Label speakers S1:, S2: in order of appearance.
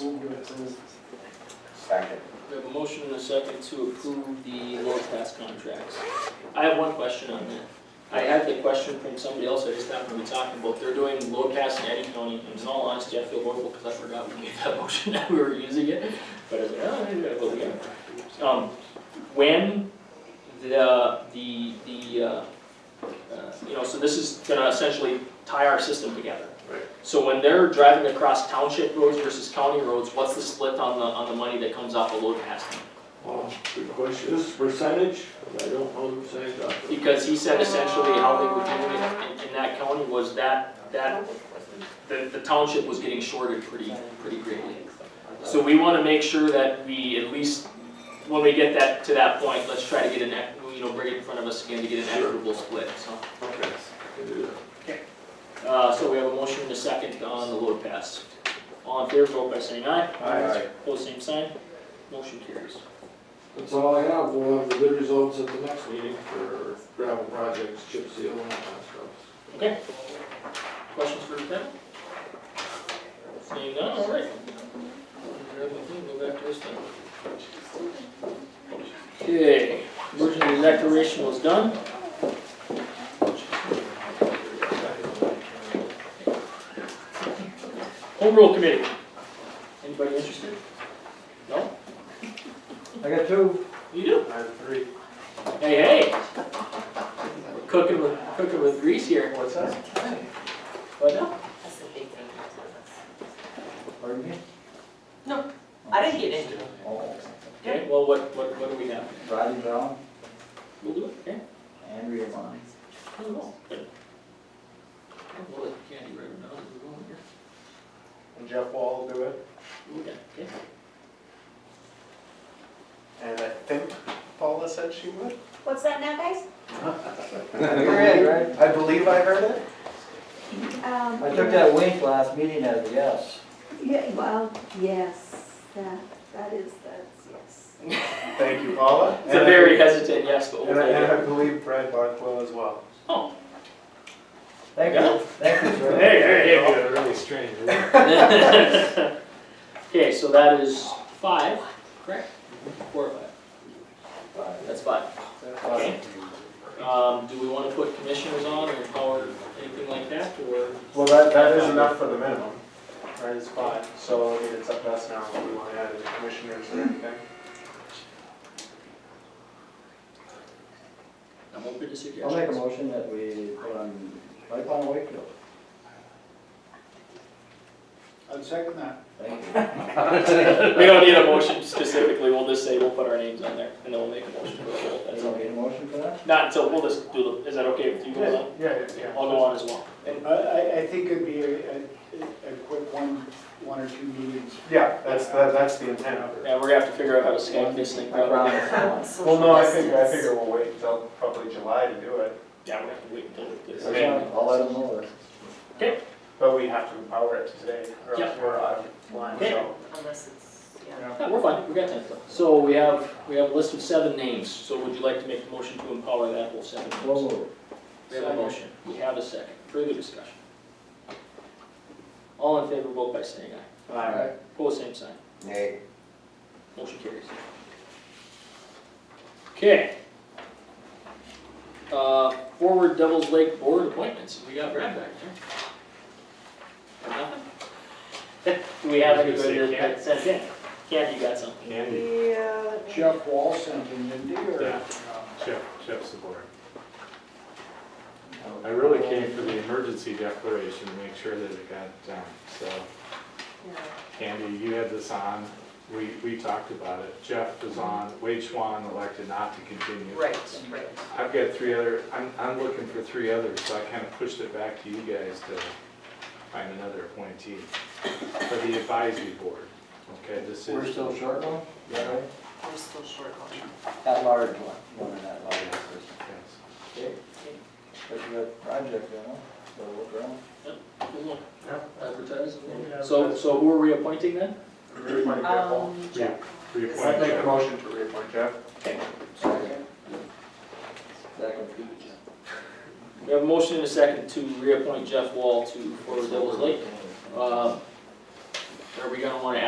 S1: Move to approve.
S2: Second.
S3: We have a motion and a second to approve the lower class contracts. I have one question on that. I had the question from somebody else I just happened to be talking about. They're doing low cast in Eddie County, and in all honesty, I feel horrible because I forgot we made that motion that we were using it. But I was like, oh, maybe I will again. Um, when the, the, the, uh, uh, you know, so this is gonna essentially tie our system together.
S4: Right.
S3: So when they're driving across township roads versus county roads, what's the split on the, on the money that comes off the load passing?
S4: Well, good question, this is percentage, but I don't know the percentage off the-
S3: Because he said essentially how they were doing it in, in that county was that, that, the, the township was getting shorted pretty, pretty greatly. So we wanna make sure that we at least, when we get that, to that point, let's try to get an, ec- you know, bring it in front of us again to get an equitable split, so.
S4: Okay. I can do that.
S3: Uh, so we have a motion and a second on the load pass. All in favor, vote by saying aye.
S2: Aye.
S3: Pose same sign. Motion carries.
S4: That's all I have, we'll have the good results at the next meeting for gravel projects, chip seal and all that stuff.
S3: Okay. Questions for Lieutenant? Seeing none, all right. Grab my thing, Go back to this thing. Okay, emergency declaration was done. Home rule committee. Anybody interested? No?
S1: I got two.
S3: You do?
S4: I have three.
S3: Hey, hey. We're Cooking with, cooking with grease here.
S1: What's that?
S3: What now?
S5: That's the big thing.
S1: Pardon me?
S5: I didn't get into it.
S2: Oh,
S3: Okay, well, what, what, what do we have?
S2: Rodney Brown,
S3: We'll do it, okay?
S2: Andrea Vines.
S3: I don't know. Good. We'll let Candy write them down as we go on here.
S6: and Jeff Wall will do it,
S3: We'll get- okay.
S6: and I think Paula said she would.
S7: What's that now, guys?
S1: You're in, right?
S6: I believe I heard it.
S7: Um,
S1: I took that wink last meeting as a yes.
S7: Yeah, well, yes, that, that is, that's, yes.
S6: Thank you, Paula.
S3: It's a very hesitant yes, but we'll
S6: And I, and
S3: take
S6: I
S3: it.
S6: believe Brad Barth will as well.
S3: Oh.
S1: Thank
S3: Yeah.
S1: you, thank you, sir.
S3: hey,
S4: really strange,
S3: hey. Okay, so that is five, correct?
S1: Mm-hmm.
S3: Four or five? That's five. Okay. Um, do we wanna put commissioners on or power, anything like that, or?
S6: Well, that, that is enough for the minimum, right, it's five, so I mean, it's up to us now if we want to add any commissioners or anything.
S3: I'm open
S1: I'll
S3: to
S1: make a
S3: suggestions.
S1: motion that we put on, Mike on Wakefield.
S6: I'd second that.
S1: Thank you.
S3: We don't need a motion specifically, we'll just say we'll put our names on there, and then we'll make a motion for the whole,
S1: You
S3: that's all.
S1: don't need a motion for that?
S3: Not until, we'll just do the, is that okay with you, Will?
S6: Yeah, yeah.
S3: I'll go on as well.
S8: And I, I, I think it'd be a, a, a quick one, one or two meetings.
S6: Yeah, that's, that- that's the intent of it.
S3: Yeah, we're gonna have to figure out how to Skype this thing.
S1: I
S3: probably.
S1: promise. I won't.
S6: Well, no, I think, I figure we'll wait until probably July to do it,
S3: Yeah, we're gonna have to wait until this.
S1: That's fine. I'll let him know that.
S6: but we have to empower it today, or else we're out of line, so.
S5: Unless it's, yeah.
S3: Yeah, we're fine, we got time. So we have, we have a list of seven names, so would you like to make a motion to empower that whole seven
S1: We'll
S3: names?
S1: move.
S3: We have a motion, we have a second, further discussion. All in favor, vote by saying aye.
S6: Aye.
S3: Pose same sign,
S2: Nay.
S3: motion carries. Okay. Uh, forward Devils Lake Board appointments, we got Brad back there. Got nothing? Do we have anybody that sent in? Candy, you got something?
S4: Candy,
S7: Yeah, let me-
S8: Jeff Wall sent in, didn't he, or?
S4: Yeah.
S1: uh,
S4: Jeff, Jeff's the board. I really came for the emergency declaration to make sure that it got done, so.
S5: Yeah.
S4: Candy, you had this on, we, we talked about it, Jeff was on, Wade Schwan elected not to continue.
S5: Right, right.
S4: I've got three other, I'm, I'm looking for three others, so I kind of pushed it back to you guys to find another appointee for the advisory board, okay, this is.
S1: We're still short one? Yeah, right?
S5: We're still short on that.
S1: At large one, one in that large person.
S4: Yes.
S1: Okay. But you got project, you know, so look around.
S3: Advertise.
S6: Yeah.
S3: So, so who are we appointing then?
S6: Reappoint Jeff Wall.
S5: Um, Jeff.
S6: I
S4: Reappoint
S6: make a
S4: Jeff.
S6: motion to reappoint Jeff.
S1: Second. Second.
S3: We have a motion and a second to reappoint Jeff Wall to Fort Devils Lake. Uh, Are we gonna wanna